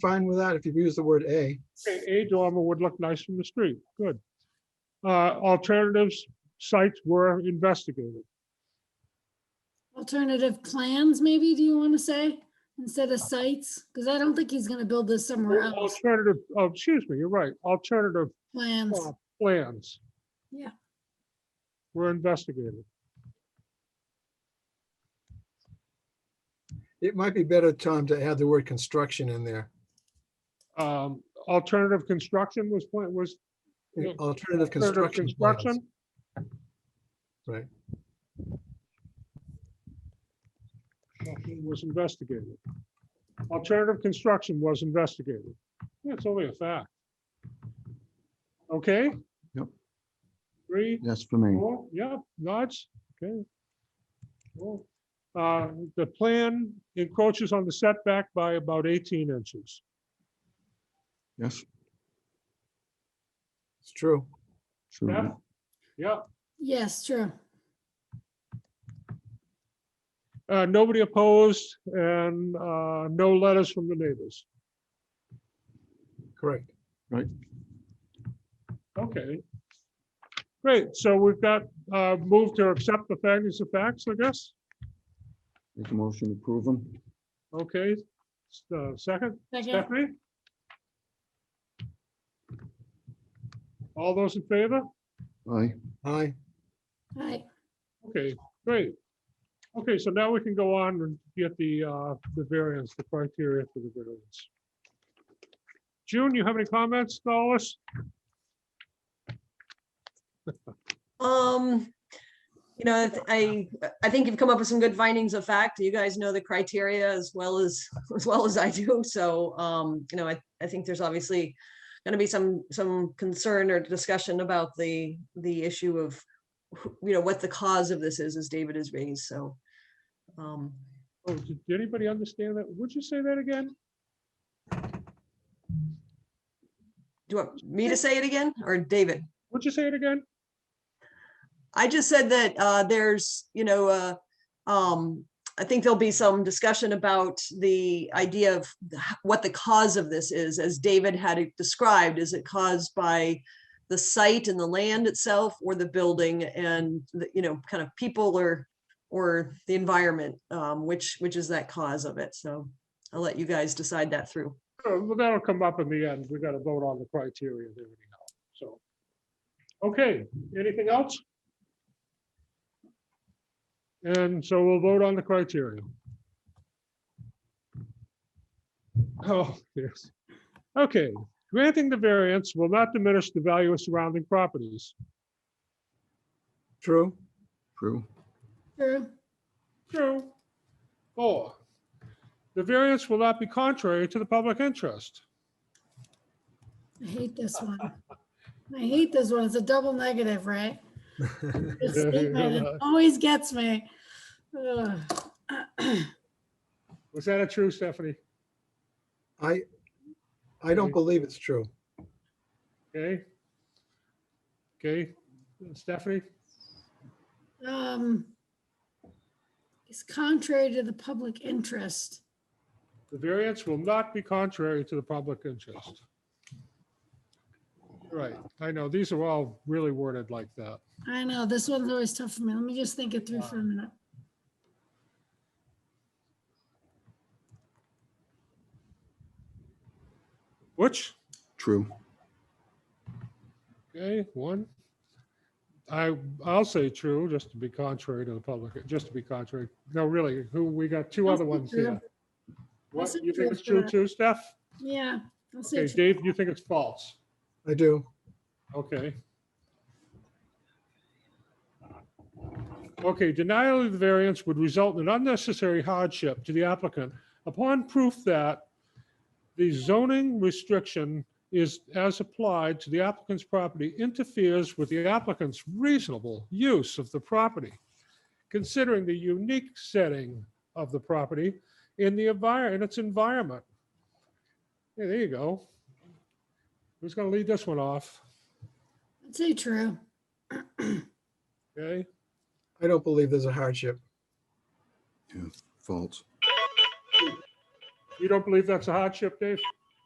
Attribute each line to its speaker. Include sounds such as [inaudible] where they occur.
Speaker 1: fine with that if you've used the word a.
Speaker 2: Okay, A dormer would look nice from the street, good. Uh, alternatives, sites were investigated.
Speaker 3: Alternative plans, maybe, do you want to say, instead of sites? Because I don't think he's gonna build this somewhere else.
Speaker 2: Alternative, oh, excuse me, you're right, alternative
Speaker 3: Plans,
Speaker 2: uh, plans.
Speaker 3: Yeah.
Speaker 2: Were investigated.
Speaker 1: It might be better, Tom, to add the word construction in there.
Speaker 2: Um, alternative construction was, pla- was. Yeah.
Speaker 1: Alternative
Speaker 2: alternative
Speaker 1: construction. plans.
Speaker 2: construction.
Speaker 1: Right.
Speaker 2: Construction Was investigated. Alternative construction was investigated. That's only a fact. Okay?
Speaker 4: Yep.
Speaker 2: Three,
Speaker 4: Yes, for me.
Speaker 2: Cool, yeah, nods, okay. Cool. Uh, The plan encroaches on the setback by about 18 inches.
Speaker 4: Yes,
Speaker 1: It's true.
Speaker 2: Yeah,
Speaker 4: true.
Speaker 2: yeah.
Speaker 3: yes, true.
Speaker 2: Uh, Nobody opposed and uh, no letters from the neighbors.
Speaker 1: Correct.
Speaker 2: Okay. Great, so we've got uh, move to accept the findings of facts, I guess.
Speaker 4: Make a motion to approve them.
Speaker 2: Okay, s- uh, second,
Speaker 3: Second,
Speaker 2: Stephanie? All those in favor?
Speaker 4: Aye.
Speaker 1: Aye.
Speaker 3: right,
Speaker 2: Okay, great. Okay, so now we can go on and get the, uh, the variance, the criteria for the variance. June, you have any comments, Dallas?
Speaker 5: Um, you know, th- I, I think you've come up with some good findings of fact. You guys know the criteria as well as, as well as I do. So, um, you know, I, I think there's obviously going to be some, some concern or discussion about the, the issue of, who- you know, what the cause of this is, as David has raised, so. um,
Speaker 2: Oh, did did anybody understand that? Would you say that again?
Speaker 5: Do you want me to say it again or David?
Speaker 2: Would you say it again?
Speaker 5: I just said that uh, there's, you know, uh, um, I think there'll be some discussion about the idea of the h- what the cause of this is, as David had it described. Is it caused by the site and the land itself, or the building and the, you know, kind of people or or the environment, um, which which is that cause of it? So I'll let you guys decide that through.
Speaker 2: Uh, Well, that'll come up in the end. We gotta vote on the criteria and everything else, so. Okay, anything else? And so we'll vote on the criteria. Oh, yes. Okay, granting the variance will not diminish the value of surrounding properties.
Speaker 1: True.
Speaker 4: True.
Speaker 3: true,
Speaker 2: True. Four, the variance will not be contrary to the public interest.
Speaker 3: I hate this one. I hate this one, it's a double negative, right? This statement, it Always gets me. Ugh. [clears throat]
Speaker 2: Was that a true, Stephanie?
Speaker 1: I, I don't believe it's true.
Speaker 2: Okay. Okay, Stephanie,
Speaker 3: Um, It's contrary to the public interest.
Speaker 2: the variance will not be contrary to the public interest. Right, I know, these are all really worded like that.
Speaker 3: I know, this one's always tough for me, let me just think it through for a minute.
Speaker 2: Which,
Speaker 4: True.
Speaker 2: okay, one. I, I'll say true, just to be contrary to the public, just to be contrary. No, really, who, we got two
Speaker 3: I'll
Speaker 2: other
Speaker 3: say
Speaker 2: ones
Speaker 3: true.
Speaker 2: here. What,
Speaker 3: say
Speaker 2: you
Speaker 3: true
Speaker 2: think it's
Speaker 3: for
Speaker 2: true
Speaker 3: that.
Speaker 2: too, Steph?
Speaker 3: Yeah. I'll say
Speaker 2: Okay,
Speaker 3: true.
Speaker 2: Dave, you think it's false?
Speaker 1: I do.
Speaker 2: Okay. Okay, denial of the variance would result in unnecessary hardship to the applicant upon proof that the zoning restriction is, as applied to the applicant's property, interferes with the applicant's reasonable use of the property, considering the unique setting of the property in the environment, in its environment. Yeah, there you go. Who's gonna lead this one off?
Speaker 3: I'd say true.
Speaker 2: Okay,
Speaker 1: I don't believe there's a hardship.
Speaker 4: Yeah, false.
Speaker 2: you don't believe that's a hardship, Dave?